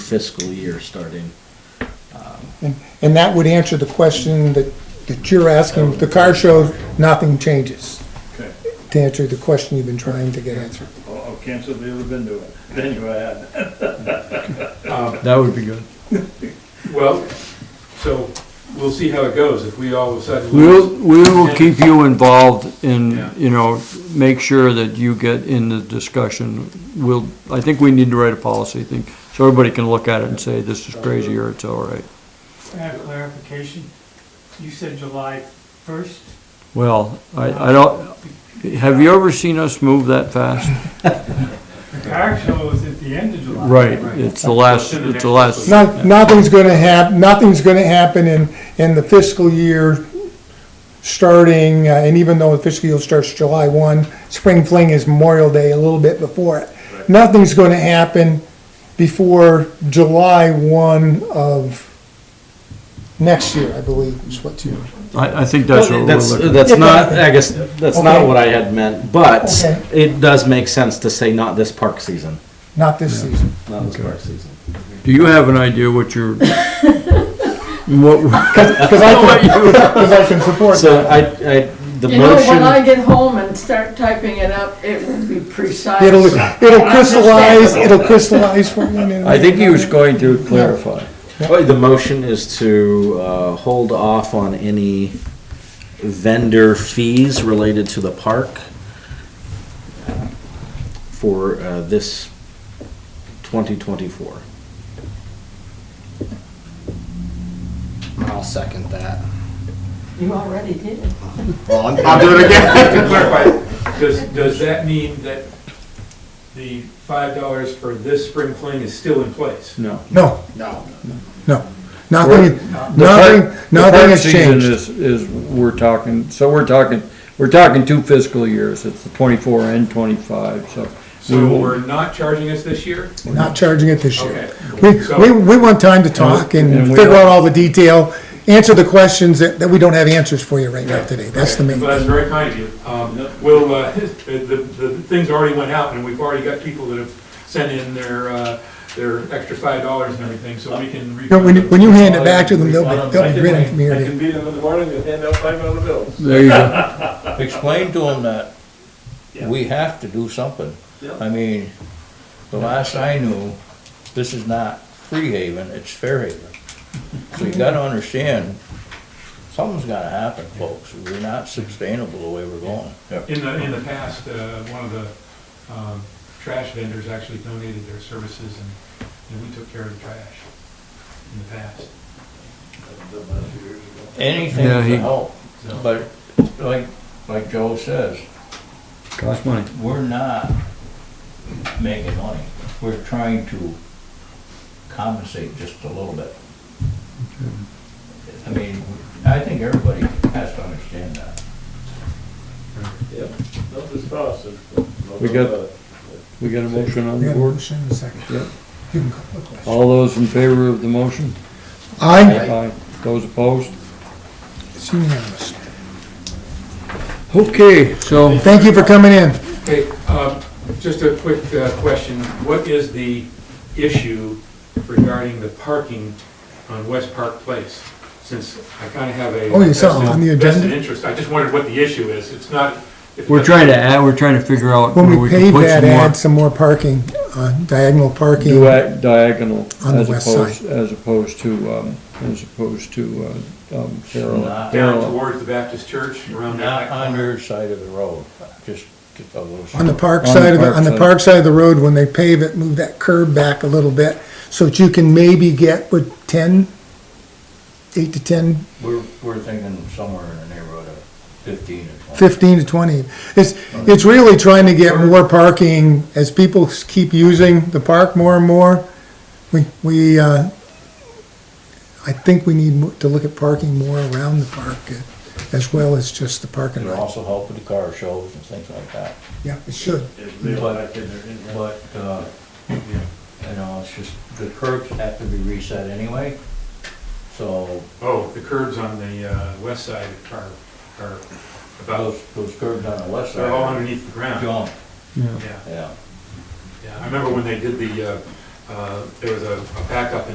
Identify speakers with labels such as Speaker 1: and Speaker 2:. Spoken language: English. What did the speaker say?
Speaker 1: fiscal year starting. um,
Speaker 2: And, and that would answer the question that, that you're asking, the car show, nothing changes,
Speaker 3: Okay,
Speaker 2: to answer the question you've been trying to get answered.
Speaker 3: I'll, I'll cancel the other window, then you add.
Speaker 1: That would be good.
Speaker 4: Well, so we'll see how it goes. If we all of a sudden.
Speaker 5: We'll, we will keep you involved
Speaker 4: Yeah.
Speaker 5: in, you know, make sure that you get in the discussion. We'll, I think we need to write a policy thing, so everybody can look at it and say, this is crazy, or it's all right.
Speaker 6: I have clarification. You said July 1st?
Speaker 5: Well, I, I don't, have you ever seen us move that fast?
Speaker 6: The car show is at the end of July.
Speaker 5: It's the last, it's the last,
Speaker 2: Not, nothing's gonna hap, nothing's gonna happen in, in the fiscal year starting, uh, and even though the fiscal year starts July one, spring fling is Memorial Day a little bit before it. Nothing's gonna happen before July one of next year, I believe, is what's yours.
Speaker 5: I, I think that's what we're
Speaker 1: That's,
Speaker 5: looking at.
Speaker 1: that's
Speaker 2: Yeah,
Speaker 1: not,
Speaker 2: but-
Speaker 1: I guess, that's not
Speaker 2: Okay.
Speaker 1: what I had meant, but
Speaker 2: Okay.
Speaker 1: it does make sense to say not this park season,
Speaker 2: not this season.
Speaker 1: not this park season.
Speaker 5: Do you have an idea what your, what,
Speaker 2: Because I can, because I can support that.
Speaker 1: So I, I, the
Speaker 7: You know, when I
Speaker 1: motion,
Speaker 7: get home and start typing it up, it will be precise.
Speaker 2: It'll, it'll crystallize, it'll crystallize for me. and-
Speaker 5: I think he was going to clarify.
Speaker 1: oh, the motion is to, uh, hold off on any vendor fees related to the park for, uh, this twenty twenty-four.
Speaker 8: I'll second that.
Speaker 7: You already did it.
Speaker 8: Well, I'm, I'll do it again.
Speaker 4: To clarify, does, does that mean that the five dollars for this spring fling is still in place?
Speaker 1: No.
Speaker 2: No,
Speaker 8: No.
Speaker 2: no, nothing,
Speaker 5: The par-
Speaker 2: nothing, nothing
Speaker 5: the
Speaker 2: has
Speaker 5: park season
Speaker 2: changed.
Speaker 5: Is, is, we're talking, so we're talking, we're talking two fiscal years, it's the twenty-four and twenty-five, so. we
Speaker 4: So
Speaker 5: will-
Speaker 4: we're not charging us this year?
Speaker 2: We're not charging it this year.
Speaker 4: Okay.
Speaker 2: We,
Speaker 4: So-
Speaker 2: we, we want time to talk and
Speaker 5: And we
Speaker 2: figure
Speaker 5: don't-
Speaker 2: out all the detail, answer the questions that, that we don't have answers for you right now today. That's the main
Speaker 4: Well, that's
Speaker 2: thing.
Speaker 4: very kind of you. Um, Will, uh, the, the, the things already went out, and we've already got people that have sent in their, uh, their extra five dollars and everything, so we can.
Speaker 2: You know, When, you-
Speaker 4: refund
Speaker 2: when you
Speaker 4: them.
Speaker 2: hand it back to them, they'll be, they'll be grinning from ear
Speaker 3: I
Speaker 2: to ear.
Speaker 3: can beat them in the morning and hand out five dollar bills.
Speaker 5: There you go.
Speaker 9: explain to them that
Speaker 3: Yeah.
Speaker 9: we have to do something.
Speaker 3: Yeah.
Speaker 9: I mean, the last I knew, this is not Free Haven, it's Fair Haven. So you gotta understand, something's gotta happen, folks. We're not sustainable the way we're going.
Speaker 4: In the, in the past, uh, one of the um, trash vendors actually donated their services, and, and we took care of the trash in the past.
Speaker 9: Anything
Speaker 5: Yeah, he-
Speaker 9: to help, but like, like Joe says,
Speaker 5: Cost money.
Speaker 9: we're not making money. We're trying to compensate just a little bit. I mean, I think everybody has to understand that.
Speaker 3: Yeah, no, this process.
Speaker 5: We got- We got a motion on
Speaker 2: We
Speaker 5: the
Speaker 2: got a
Speaker 5: board?
Speaker 2: motion and a second.
Speaker 5: Yep.
Speaker 2: You can call the question.
Speaker 5: All those in favor of the motion?
Speaker 2: Aye,
Speaker 5: Aye. Those opposed?
Speaker 2: it's unanimous.
Speaker 5: Okay, so,
Speaker 2: Thank you for coming in.
Speaker 4: Okay, um, just a quick uh, question. What is the issue regarding the parking on West Park Place? Since I kind of have a.
Speaker 2: Oh, you saw it on the agenda?
Speaker 4: Vested interest. I just wondered what the issue is. It's not. if it
Speaker 5: we're
Speaker 4: doesn't-
Speaker 5: trying to add, we're trying to figure out
Speaker 2: When
Speaker 5: where
Speaker 2: we
Speaker 5: we
Speaker 2: pave
Speaker 5: can put
Speaker 2: that,
Speaker 5: some more
Speaker 2: add some more parking, uh, diagonal parking.
Speaker 5: dua- diagonal,
Speaker 2: On the
Speaker 5: as
Speaker 2: west
Speaker 5: opposed, as opposed to, um, as opposed to, uh, um, parallel.
Speaker 9: Not-
Speaker 4: Down towards the Baptist church around
Speaker 9: Not
Speaker 4: that.
Speaker 9: on your side of the road, just just a little.
Speaker 2: On the park
Speaker 5: On the
Speaker 2: side of, the
Speaker 5: park
Speaker 2: on the
Speaker 5: side.
Speaker 2: park side of the road, when they pave it, move that curb back a little bit, so that you can maybe get with ten, eight to ten,
Speaker 9: We're, we're thinking somewhere in the neighborhood of fifteen to twenty.
Speaker 2: fifteen to twenty. It's, it's really trying to get more parking, as people s- keep using the park more and more, we, we, uh, I think we need mo- to look at parking more around the park, uh, as well as just the parking
Speaker 9: It'll
Speaker 2: lot.
Speaker 9: also help with the car shows and things like that.
Speaker 2: Yeah, it should.
Speaker 9: But, uh, you know, it's just, the curbs have to be reset anyway, so
Speaker 4: Oh, the curbs on the uh, west side are, are about,
Speaker 9: those, those curbs on the west side.
Speaker 4: they're all underneath the
Speaker 9: are
Speaker 4: ground.
Speaker 9: Junk,
Speaker 4: Yeah,
Speaker 9: yeah.
Speaker 4: yeah. I remember when they did the uh, uh, there was a a backup in